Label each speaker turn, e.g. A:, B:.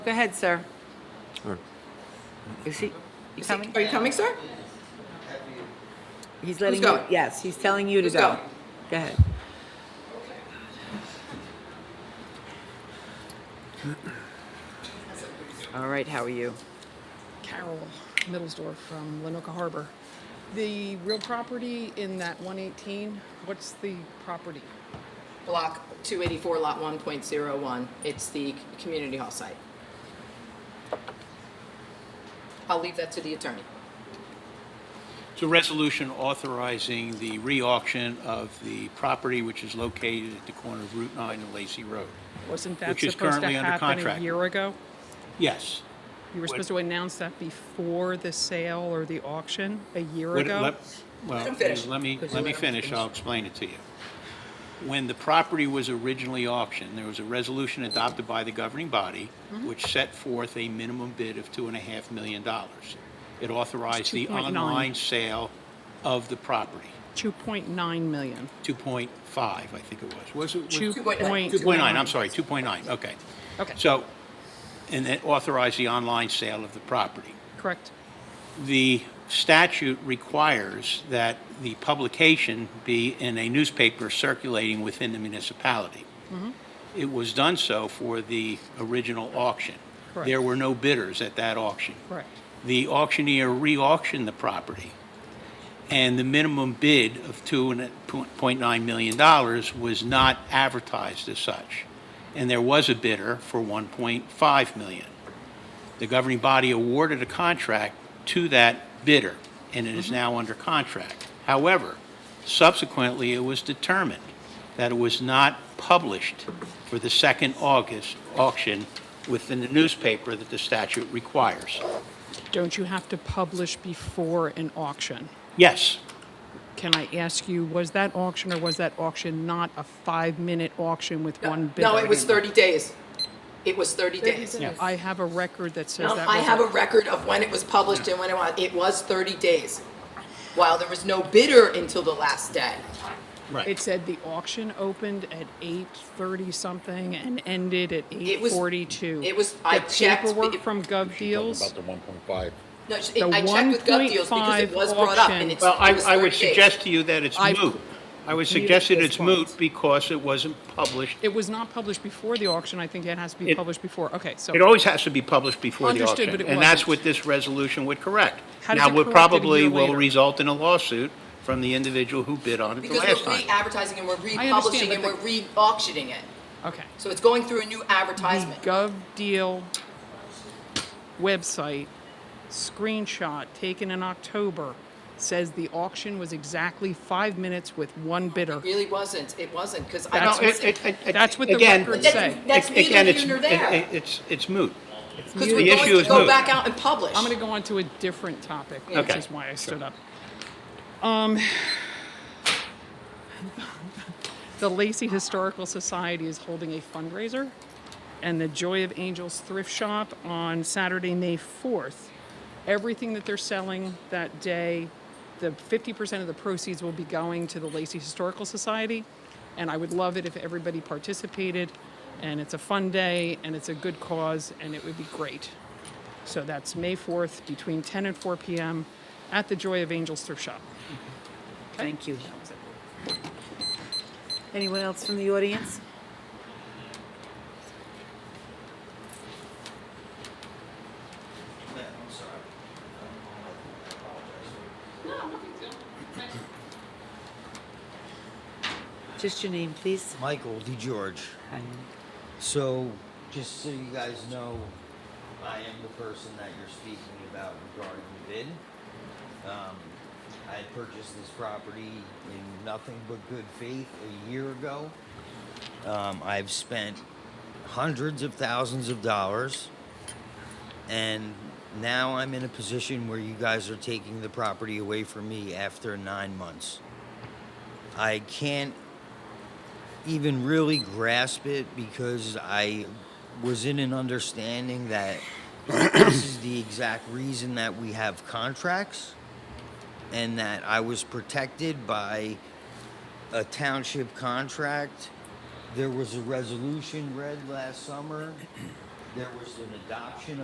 A: Go ahead, sir. Is he, you coming?
B: Are you coming, sir?
A: He's letting
B: Who's
A: you,
B: going?
A: yes, he's telling you to
B: Who's
A: go.
B: going?
A: Go ahead. All right, how are you?
C: Carol Middlesdorf from Lenoka Harbor. The real property in that 118, what's the property?
B: Block 284, Lot 1.01. It's the community hall site. I'll leave that to the attorney.
D: It's a resolution authorizing the re-auction of the property which is located at the corner of Route 9 and Lacey Road.
C: Wasn't that
D: Which is
C: supposed to
D: currently under
C: happen a
D: contract.
C: year ago?
D: Yes.
C: You were supposed to announce that before the sale or the auction a year
D: Would-
C: ago?
D: let- Well,
B: him finish.
D: let me, let me finish, I'll explain it to you. When the property was originally auctioned, there was a resolution adopted by the governing body which set forth a minimum bid of $2.5 million. It authorized the
C: 2.9.
D: online sale of the property,
C: 2.9 million.
D: 2.5, I think it was. Was it? was-
B: 2.9.
D: 2.9, I'm sorry, 2.9, okay.
C: Okay.
D: So, and then authorize the online sale of the property.
C: Correct.
D: The statute requires that the publication be in a newspaper circulating within the municipality.
C: Mm-hmm.
D: It was done so for the original auction.
C: Correct.
D: There were no bidders at that auction.
C: Correct.
D: The auctioneer re-auctioned the property, and the minimum bid of $2.9 million was not advertised as such. And there was a bidder for $1.5 million. The governing body awarded a contract to that bidder, and it is now under contract. However, subsequently, it was determined that it was not published for the second August auction within the newspaper that the statute requires.
C: Don't you have to publish before an auction?
D: Yes,
C: Can I ask you, was that auction or was that auction not a five-minute auction with one bidder?
B: No, it was 30 days. It was 30 days.
C: I have a record that says
B: Um,
C: that was
B: I have
C: a-
B: a record of when it was published and when it was, it was 30 days. While there was no bidder until the last day.
C: It
D: right.
C: said the auction opened at eight thirty something and ended at eight
B: was-
C: forty-two.
B: it was- I checked,
C: The paperwork
B: it-
C: from Gov Deals,
E: About the 1.5.
B: No, it-
C: The
B: I checked with Gov Deals because it
C: 1.5
B: was brought up
C: auction.
B: and it's,
D: Well, I,
B: it was
D: I would
B: 30 days.
D: suggest to you that it's
C: I-
D: moot. I would
C: Muted
D: suggest that
C: this
D: it's moot
C: point.
D: because it wasn't published.
C: it was not published before the auction, I think it has to be
D: It-
C: published before, okay, so.
D: It always has to be published before the
C: Understood,
D: auction.
C: but it
D: And that's
C: wasn't.
D: what this resolution would correct.
C: How does
D: Now,
C: it
D: what
C: correct it a
D: probably
C: year
D: will
C: later?
D: result in a lawsuit from the individual who bid on it the
B: Because
D: last
B: we're
D: time.
B: re-advertising and we're
C: understand,
B: republishing
C: but
B: and
C: the-
B: we're re-auctioning it.
C: Okay.
B: So it's going through a new
C: The
B: advertisement.
C: Gov Deal website screenshot taken in October says the auction was exactly five minutes with one bidder.
B: Really wasn't, it wasn't, because I
D: No,
C: That's
B: don't,
D: it- it-
B: because
D: it- it-
C: That's what the
D: again,
C: records
B: That's-
C: say.
B: that's
D: it- again,
B: neither
D: it's-
B: here nor there.
D: it- it- It's, it's moot.
B: we're
D: The issue
B: going to
D: is
B: go
D: moot.
B: back out and publish.
C: I'm going to go on to a different topic, which
D: Okay.
C: is why I stood up. Um, the Lacey Historical Society is holding a fundraiser, and the Joy of Angels thrift shop on Saturday, May 4th. Everything that they're selling that day, the 50% of the proceeds will be going to the Lacey Historical Society, and I would love it if everybody participated. And it's a fun day, and it's a good cause, and it would be great. So that's May 4th between 10 and 4 p.m. at the Joy of Angels Thrift Shop.
A: Thank you. Anyone else from the audience?
F: I'm sorry. I apologize.
A: Just your name, please.
F: Michael D. George. So, just so you guys know, I am the person that you're speaking about regarding the bid. Um, I purchased this property in nothing but good faith a year ago. Um, I've spent hundreds of thousands of dollars, and now I'm in a position where you guys are taking the property away from me after nine months. I can't even really grasp it because I was in an understanding that this is the exact reason that we have contracts and that I was protected by a township contract. There was a resolution read last summer There was an adoption